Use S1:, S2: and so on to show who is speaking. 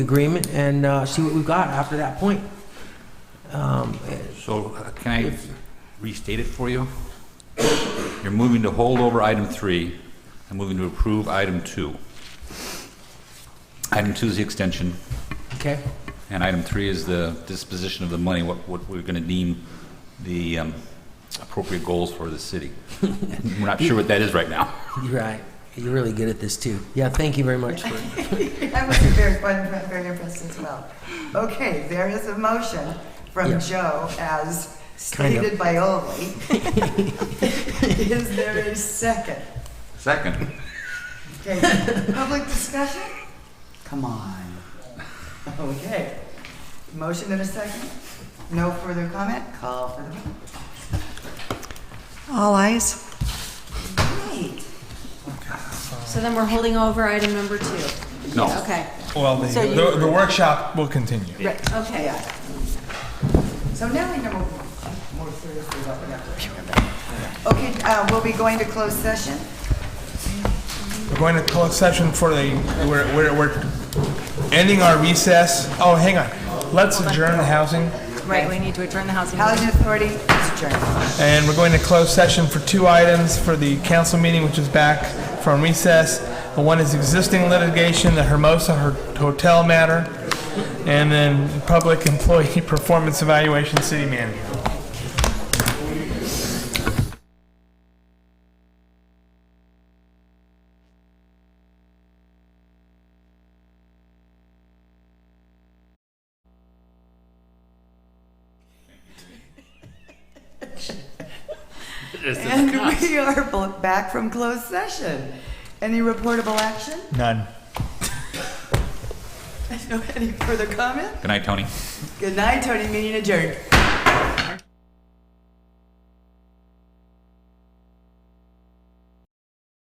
S1: agreement and uh, see what we've got after that point. Um,
S2: So uh, can I restate it for you? You're moving to hold over item three and moving to approve item two. Item two is the extension,
S1: Okay,
S2: and item three is the disposition of the money, what, what we're going to deem the um, appropriate goals for the city. And We're not sure what that is right now.
S1: you're right. You're really good at this too. Yeah, thank you very much. for-
S3: That was very fun, very impressed as well. Okay, there is a motion
S1: Yeah.
S3: from Joe as
S1: Kind of.
S3: stated by Ollie. Is there a second?
S2: Second,
S3: Okay, public discussion? Come on. Okay, motion and a second? No further comment? Call for the vote.
S4: All eyes.
S3: Great.
S5: So then we're holding over item number two.
S2: no.
S5: Okay,
S6: Well, the,
S5: So you-
S6: the, the workshop will continue.
S3: Right,
S5: okay.
S3: yeah. So now we know more seriously what we have to remember. Okay, uh, we'll be going to closed session.
S6: We're going to close session for the, we're, we're, we're ending our recess. Oh, hang on. Let's adjourn the housing
S4: Right, we need to adjourn the housing.
S3: Housing Authority is adjourned.
S6: and we're going to close session for two items for the council meeting, which is back from recess. One is existing litigation, the Hermosa Her- Hotel matter, and then public employee performance evaluation, city manager.
S3: And we are bl- back from closed session. Any reportable action?
S6: None.
S3: No, Any further comment?
S2: Good night, Tony.
S3: Good night, Tony, meeting adjourned.